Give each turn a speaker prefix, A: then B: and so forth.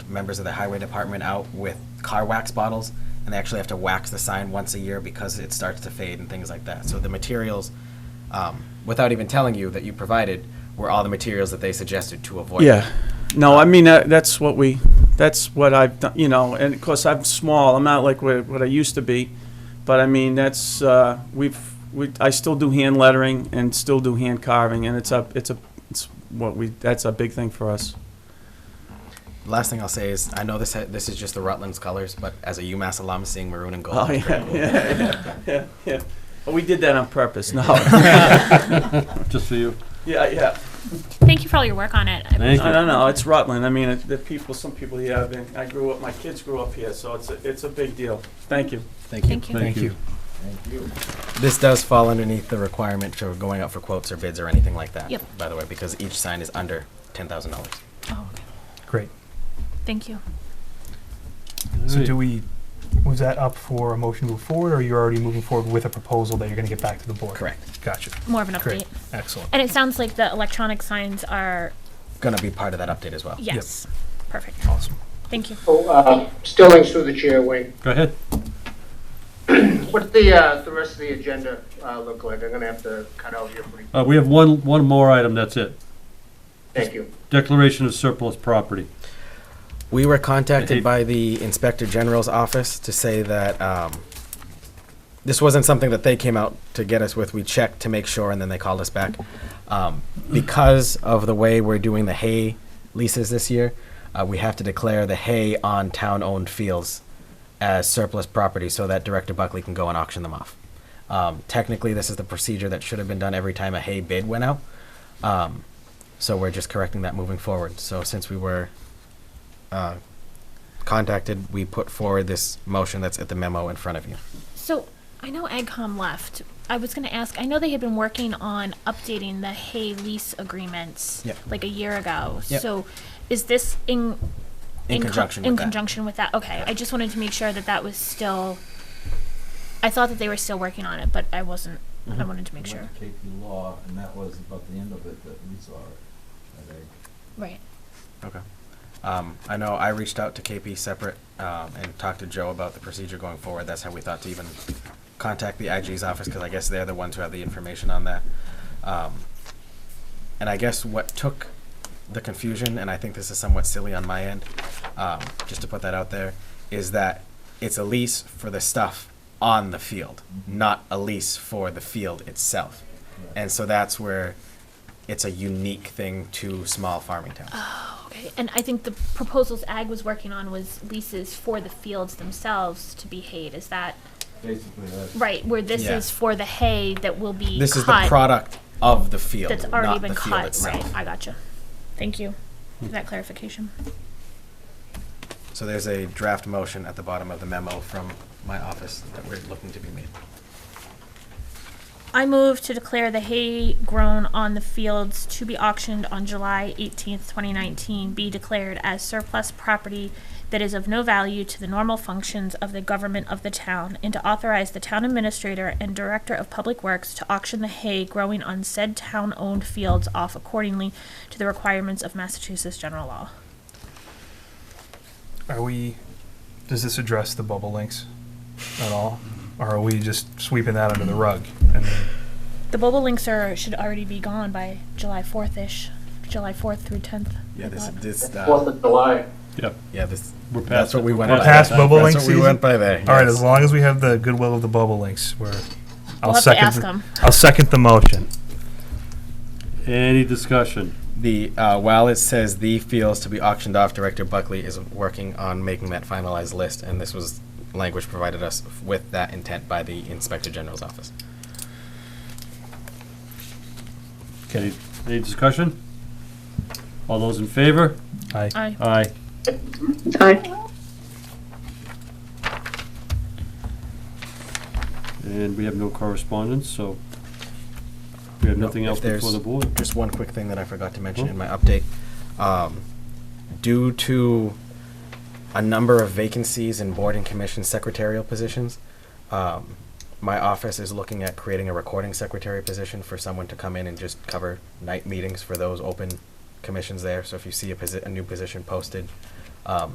A: members of the highway department out with car wax bottles, and they actually have to wax the sign once a year because it starts to fade and things like that. So the materials, um, without even telling you that you provided, were all the materials that they suggested to avoid.
B: Yeah. No, I mean, that- that's what we, that's what I've done, you know, and of course, I'm small, I'm not like what, what I used to be, but I mean, that's, uh, we've, we, I still do hand lettering and still do hand carving, and it's a, it's a, it's what we, that's a big thing for us.
A: Last thing I'll say is, I know this, ha- this is just the Rutland's colors, but as a UMass alum, seeing maroon and gold.
B: Oh,
A: is pretty
B: yeah,
A: cool.
B: yeah, yeah, yeah, yeah. But we did that on purpose, no.
C: Just for you.
B: Yeah, yeah.
D: Thank you for all your work on it.
C: Thank
B: I
C: you.
B: don't know, it's Rutland, I mean, it- the people, some people here have been, I grew up, my kids grew up here, so it's, a it's a big deal. Thank you.
A: Thank you.
D: Thank you.
C: Thank you.
A: This does fall underneath the requirement for going out for quotes or bids or anything like that.
D: Yep.
A: By the way, because each sign is under ten thousand dollars.
D: Oh, okay.
E: Great.
D: Thank you.
E: So do we, was that up for a motion to move forward, or you're already moving forward with a proposal that you're gonna get back to the board?
A: Correct.
E: Gotcha.
D: More of an update.
E: Great. Excellent.
D: And it sounds like the electronic signs are
A: Gonna be part of that update as well.
D: yes, perfect.
E: Awesome.
D: Thank you.
F: Oh, uh, Stillings through the chair, Wayne.
C: Go ahead.
F: What's the, uh, the rest of the agenda, uh, look like? I'm gonna have to cut out here pretty,
C: Uh, we have one, one more item, that's it.
F: thank you.
C: Declaration of surplus property.
A: We were
C: I
A: contacted
C: hate-
A: by the Inspector General's office to say that um, this wasn't something that they came out to get us with. We checked to make sure, and then they called us back. Um, Because of the way we're doing the hay leases this year, uh, we have to declare the hay on town-owned fields as surplus property so that Director Buckley can go and auction them off. Um, Technically, this is the procedure that should have been done every time a hay bid went out. Um, So we're just correcting that moving forward. So since we were uh, contacted, we put forward this motion that's at the memo in front of you.
D: So I know AgCom left. I was going to ask. I know they had been working on updating the hay lease agreements
A: Yep.
D: like a year ago.
A: Yep.
D: So is this in
A: In
D: co-
A: conjunction
D: in
A: with that.
D: conjunction with that? Okay. I just wanted to make sure that that was still. I thought that they were still working on it, but I wasn't.
A: Mm-hmm.
D: I wanted to make sure.
G: went to KP Law, and that was about the end of it that we saw it. that I-
D: Right.
A: Okay. Um, I know I reached out to KP separate, um, and talked to Joe about the procedure going forward. That's how we thought to even contact the IG's office, because I guess they're the ones who have the information on that. Um, and I guess what took the confusion, and I think this is somewhat silly on my end, um, just to put that out there, is that it's a lease for the stuff on the field, not a lease for the field itself. And so that's where it's a unique thing to small farming towns.
D: Okay, and I think the proposals Ag was working on was leases for the fields themselves to be hayed, is that,
G: Basically, that's.
D: right, where this
A: Yeah.
D: is for the hay that will be
A: This is the
D: cut,
A: product of the field,
D: That's
A: not
D: already been
A: the field
D: cut,
A: itself. Hmm.
D: right, I gotcha. Thank you for that clarification.
A: So there's a draft motion at the bottom of the memo from my office that we're looking to be made.
D: I move to declare the hay grown on the fields to be auctioned on July eighteenth, twenty nineteen, be declared as surplus property that is of no value to the normal functions of the government of the town, and to authorize the town administrator and director of public works to auction the hay growing on said town-owned fields off accordingly to the requirements of Massachusetts general law.
E: Are we, does this address the bubble links at all? Or are we just sweeping that under the rug? And then-
D: The bobolinks are, should already be gone by July fourth-ish, July fourth through tenth.
A: Yeah, this, this,
F: Fourth
A: uh,
F: of July.
C: Yep.
A: yeah, this,
C: We're
A: that's
C: past
A: what
C: it.
A: we went
C: We're
A: by.
E: past
C: it.
E: bubble link
A: That's what we
E: season?
A: went by there.
E: All right,
A: yes.
E: as long as we have the goodwill of the bubble links, we're, I'll
D: We'll have to
E: second.
D: ask
E: the-
D: them.
E: I'll second the motion.
C: Any discussion?
A: The, uh, while it says the fields to be auctioned off, Director Buckley is working on making that finalized list, and this was language provided us with that intent by the Inspector General's office.
C: Any, any discussion? All those in favor?
E: Aye.
D: Aye.
C: Aye. And we have no correspondence, so we have
A: No,
C: nothing
A: if
C: else before
A: there's-
C: the board.
A: just one quick thing that I forgot to mention in my update. Um, Due to a number of vacancies in board and commission secretarial positions, um, my office is looking at creating a recording secretary position for someone to come in and just cover night meetings for those open commissions there. So if you see a posi- a new position posted, um,